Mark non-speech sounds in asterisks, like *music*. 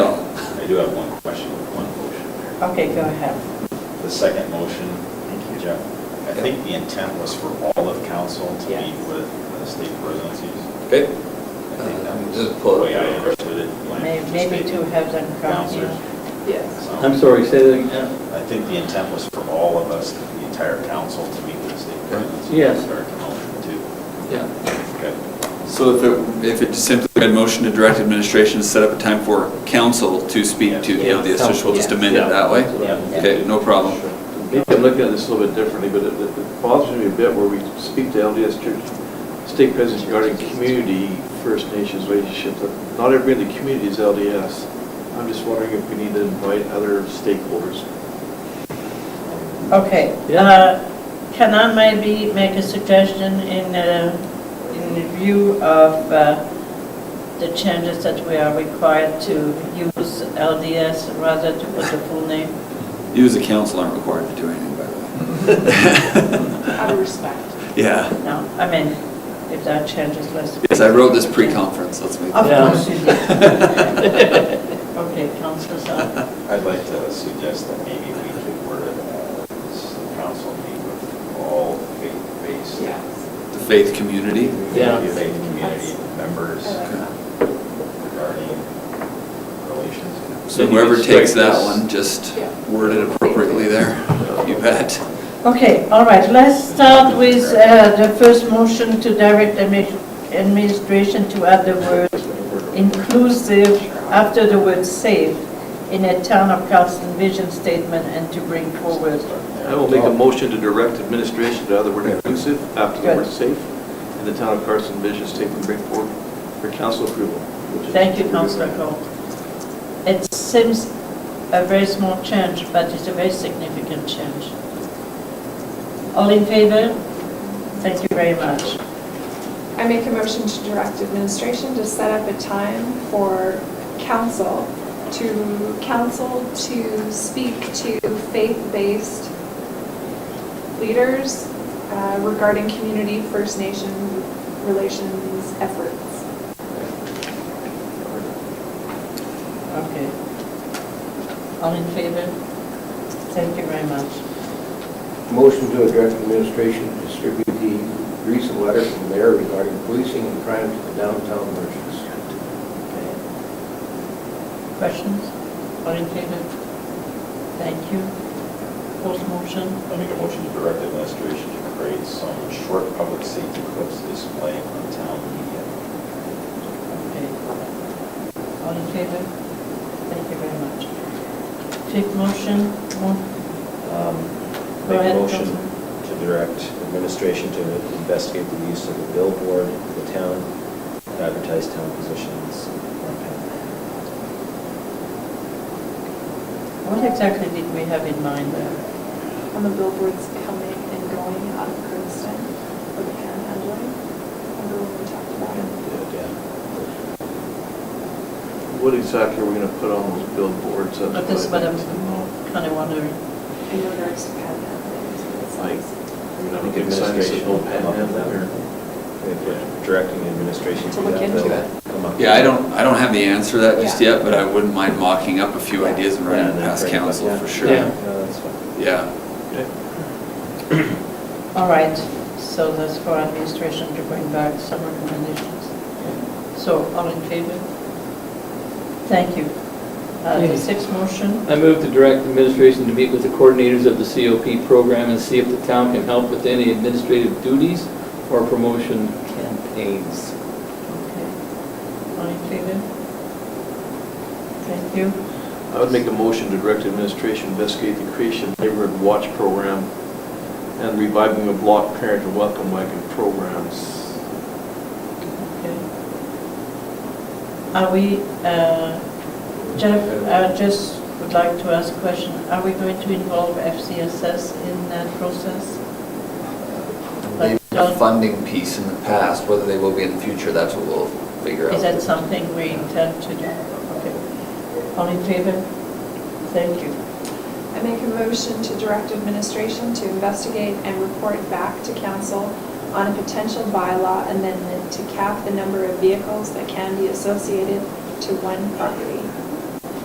I do have one question, one motion Okay, go ahead. there. The second motion, Thank you. Jeff, I think the intent was for all of council to Yeah. meet with the state presidencies. Okay. I think Uh, that was just pull it the way I up. understood it. when I May- Maybe participated. to have them come, Counselors. yeah. Yes. So, I'm sorry, say that again. I think the intent was for all of us, the entire council, to meet with the state presidencies. Yes. Start the motion too. Yeah. Okay. So if it, if it just simply read motion to direct administration to set up a time for council to speak to the LDS, just we'll just amend it that way? Yeah. Okay, no problem. Maybe I'm looking at this a little bit differently, but it- it it bothers me a bit where we speak to LDS Church, state presence regarding community, First Nations relationship, that not everybody in the community is LDS. I'm just wondering if we need to invite other stakeholders. Okay. Yeah. uh, Can I maybe make a suggestion in, uh, in the view of uh, the changes that we are required to use LDS rather to put the full name? You as a council aren't required to do anything, by the way. *laughs* *laughs* Out of respect. Yeah, No, I mean, if there are changes, let's. yes, I wrote this pre-conference, let's make. Of Yeah. course you did. *laughs* Okay, Counselor Sal. I'd like to suggest that maybe we could word it as the council meet with all faith-based. Yes. The faith community. Yeah. Faith community members I like that. regarding relations. So whoever takes that Strike this. one, just Yeah. word it appropriately there. *laughs* You bet. Okay, all right, let's start with uh, the first motion to direct admi- administration to add the word inclusive after the word safe in a town of Carlson vision statement and to bring forward. I will make a motion to direct administration to other word inclusive after the word Good. safe in the town of Carson vision statement bring forward for council approval. Thank you, Councilor Cole. It seems a very small change, but it's a very significant change. All in favor? Thank you very much. I make a motion to direct administration to set up a time for council, to council to speak to faith-based leaders uh, regarding community First Nation relations efforts. Okay. All in favor? Thank you very much. Motion to direct administration to distribute the recent letter from the mayor regarding policing and crime to the downtown merchants. Okay. Questions? All in favor? Thank you. Post motion? I make a motion to direct administration to create some short public safety clips displaying on town media. Okay. All in favor? Thank you very much. Fifth motion? Mo- Um, Go Make ahead, a motion Councilman. to direct administration to investigate the use of the billboard in the town, and advertise town positions. on town. What exactly did we have in mind there? On the billboards coming and going out of Curdston, with the Karen Handling. Remember when we talked about it? What exactly are we going to put on those billboards? That's But this is what I I'm need to know. kind of wondering. In regards to Karen Handling, is what it Like, says. I mean, I I'm think going to sign this administration no will come up with panhandle that. here. If we're Directing administration to To look that. into they'll it. come up with Yeah, I it. don't, I don't have the answer to that just Yeah. yet, but I wouldn't mind mocking up a few ideas and running Yeah, it then past bring it up, council yeah. for sure. Yeah. No, that's Uh, fine. Yeah. All right, so that's for administration to bring back some recommendations. So all in favor? Thank you. Uh, The Yeah. sixth motion, I move to direct administration to meet with the coordinators of the COP program and see if the town can help with any administrative duties or promotion campaigns. okay. All in favor? Thank you. I would make a motion to direct administration to investigate the creation of neighborhood watch program and reviving the block parent and welcome wagon programs. Okay. Are we, uh, Jeff, I just would like to ask a question. Are we going to involve FCSS in that process? They've But don't- done a funding piece in the past, whether they will be in the future, that's what we'll figure out. Is that something we intend to do? Okay. All in favor? Thank you. I make a motion to direct administration to investigate and report back to council on a potential bylaw amendment to cap the number of vehicles that can be associated to one property.